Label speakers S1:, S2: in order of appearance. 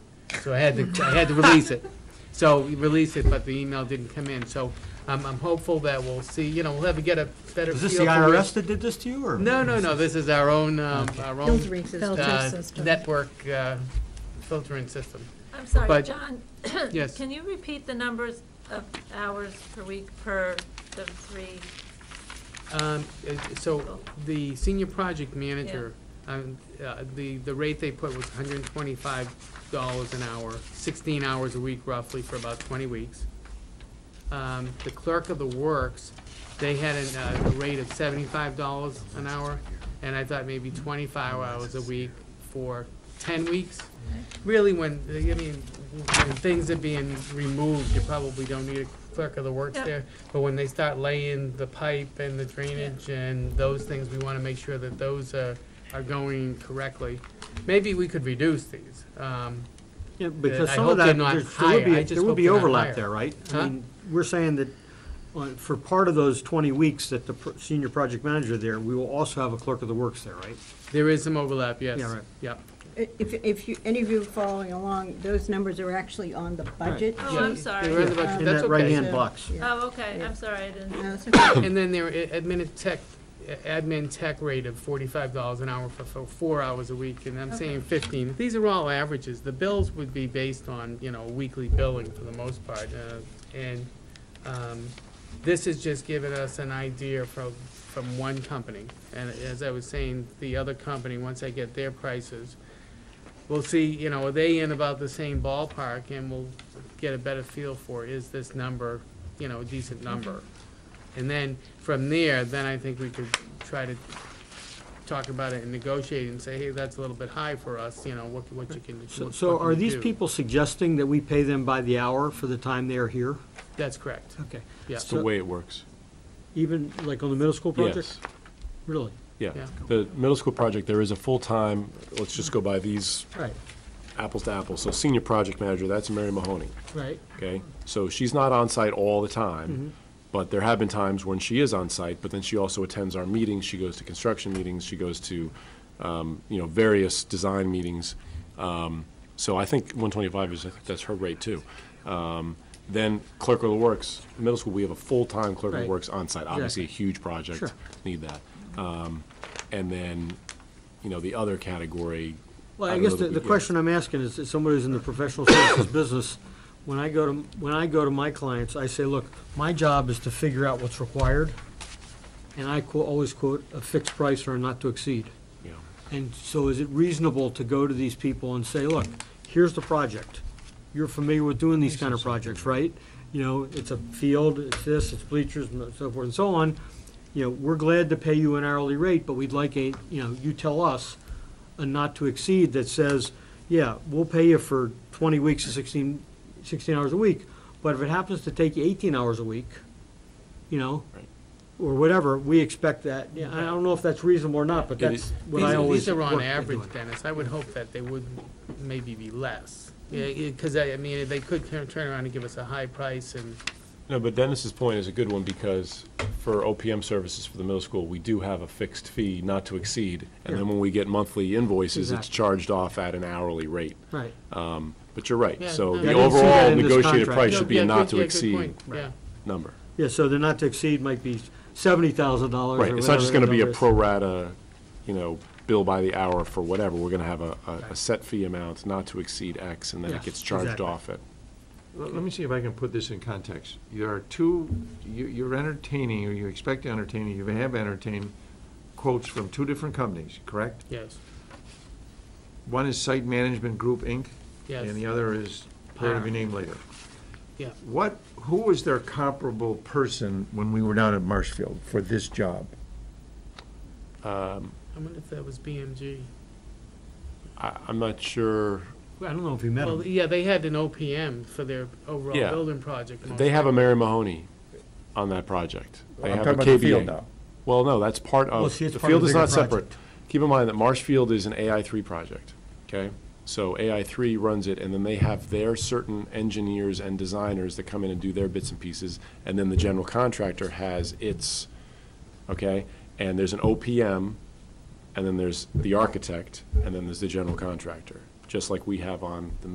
S1: so I had to, I had to release it. So we released it, but the email didn't come in, so um, I'm, I'm hopeful that we'll see, you know, we'll have, get a better feel.
S2: Is this the
S1: for it.
S2: IRS that did this to you, or?
S1: No, no, no, this is our own, um, our own.
S3: Filtering system.
S1: uh,
S3: Filter system.
S1: Network uh, filtering system.
S4: I'm
S1: But-
S4: sorry, John.
S1: Yes.
S4: Can you repeat the numbers of hours per week per the three?
S1: Um, uh, So the senior project manager, um, uh, the, the rate they put was hundred and twenty-five dollars an hour, sixteen hours a week roughly for about twenty weeks. Um, The clerk of the works, they had an, uh, a rate of seventy-five dollars an hour, and I thought maybe twenty-five hours a week for ten weeks. Really, when, I mean, when things are being removed, you probably don't need a clerk of the works
S4: Yep.
S1: there. But when they start laying the pipe and the drainage and those things, we wanna make sure that those are, are going correctly. Maybe we could reduce these. Um,
S2: Yeah, because
S1: Uh, I
S2: some
S1: hope
S2: of
S1: they're
S2: that,
S1: not
S2: there's- there
S1: higher.
S2: would
S1: I
S2: be,
S1: just
S2: there
S1: hope
S2: would be
S1: they're not
S2: overlap
S1: higher.
S2: there, right?
S1: Huh?
S2: I mean, we're saying that uh, for part of those 20 weeks that the pr- senior project manager there, we will also have a clerk of the works there, right?
S1: there is some overlap, yes.
S2: Yeah, right.
S1: Yep.
S3: If, if you, any of you following along, those numbers are actually on the budget.
S4: Oh,
S1: Yeah.
S4: I'm sorry.
S1: There is a bunch-
S3: Yeah.
S2: In
S1: that's
S2: that
S1: okay.
S2: right-hand box.
S3: Yeah.
S4: Oh, okay, I'm sorry, I didn't.
S3: No, it's okay.
S1: And then there, i- admin tech, admin tech rate of forty-five dollars an hour for, for four hours a week, and I'm saying fifteen. These are all averages. The bills would be based on, you know, weekly billing for the most part. uh, And, um, this is just giving us an idea from, from one company. And as I was saying, the other company, once I get their prices, we'll see, you know, are they in about the same ballpark? And we'll get a better feel for, is this number, you know, a decent number? And then, from there, then I think we could try to talk about it and negotiate and say, hey, that's a little bit high for us, you know, what, what you can.
S2: So-
S1: what
S2: So
S1: you
S2: are
S1: can
S2: these
S1: do.
S2: people suggesting that we pay them by the hour for the time they are here?
S1: That's correct,
S2: Okay.
S1: yeah.
S5: It's the way it works.
S2: Even like on the middle school project?
S5: Yes,
S2: Really?
S5: yeah.
S1: Yeah.
S5: The middle school project, there is a full-time, let's just go by these
S2: Right,
S5: apples to apples. So senior project manager, that's Mary Mahoney,
S2: right.
S5: okay? So she's not on site all the
S2: Mm-hmm.
S5: time, but there have been times when she is on site, but then she also attends our meetings. She goes to construction meetings, she goes to, um, you know, various design meetings. Um, So I think 125 is, I think that's her rate too. Um, Then clerk of the works, middle school, we have a full-time clerk of the
S2: Right.
S5: works on site. Obviously, a huge project,
S2: Sure.
S5: need that. Um, And then, you know, the other category.
S2: Well, I
S5: don't
S2: guess
S5: know that
S2: the,
S5: we-
S2: the
S5: yeah.
S2: question I'm asking is, is somebody who's in the professional services business, when I go to, when I go to my clients, I say, look, my job is to figure out what's required, and I qu- always quote a fixed price or a not to exceed.
S5: Yeah.
S2: And so is it reasonable to go to these people and say, look, here's the project? You're familiar with doing these kind of projects, right? You know, it's a field, it's this, it's bleachers, and so forth and so on. You know, we're glad to pay you an hourly rate, but we'd like a, you know, you tell us a not to exceed that says, yeah, we'll pay you for twenty weeks to 16 16 hours a week, but if it happens to take you eighteen hours a week, you know,
S5: Right.
S2: or whatever, we expect that. Yeah, I don't know if that's reasonable or not, but
S5: It
S2: that's
S5: is-
S2: what
S1: These
S2: I
S1: are,
S2: always.
S1: these are on
S2: work at
S1: average,
S2: doing.
S1: Dennis, I would hope that they would maybe be less. Yeah, yeah, cause I, I mean, they could turn, turn around and give us a high price and,
S5: No, but Dennis's point is a good one, because for OPM services for the middle school, we do have a fixed fee not to exceed, and then when we get monthly invoices, it's
S2: Exactly.
S5: charged off at an hourly rate.
S2: Right.
S5: Um, But you're right,
S1: Yeah,
S5: so
S1: no,
S5: the
S1: I didn't
S2: see that
S5: overall
S2: in this
S5: negotiated
S2: contract.
S5: price
S1: Yeah,
S5: should be
S1: yeah,
S5: a not
S1: good-
S5: to
S1: yeah, good
S5: exceed
S1: point, Yeah,
S5: number.
S2: Yeah, so the not to exceed might be seventy thousand dollars
S5: Right, it's not just gonna be a pro rata, you know, bill by the hour for whatever, we're gonna have a, a, a set fee amount not to exceed X, and then it
S2: Yes,
S5: gets charged
S2: exactly.
S5: off at
S6: Well, Let me see if I can put this in context. There are two, you- you're entertaining, or you expect to entertain, or you have entertained quotes from two different companies, correct?
S1: yes,
S6: One is Site Management Group, Inc., and the
S1: yes, Uh,
S6: other is, part of your name later.
S1: yeah.
S6: What, who was their comparable person when we were down at Marshfield for this job?
S1: I wonder if that was BMG.
S5: I, I'm not sure,
S2: I don't know if you met
S1: Well,
S2: him.
S1: yeah, they had an OPM for their overall
S5: Yeah.
S1: building project.
S5: they have a Mary Mahoney on that project. They
S6: I'm
S5: have
S6: talking
S5: a
S6: about the field
S5: KVA.
S6: now.
S5: Well, no, that's part
S2: Well,
S5: of,
S2: see, it's
S5: the
S2: part of
S5: field
S2: the
S5: is
S2: bigger
S5: not separate.
S2: project.
S5: Keep in mind that Marshfield is an AI3 project, okay? So AI3 runs it, and then they have their certain engineers and designers that come in and do their bits and pieces, and then the general contractor has its, okay? And there's an OPM, and then there's the architect, and then there's the general contractor, just like we have on the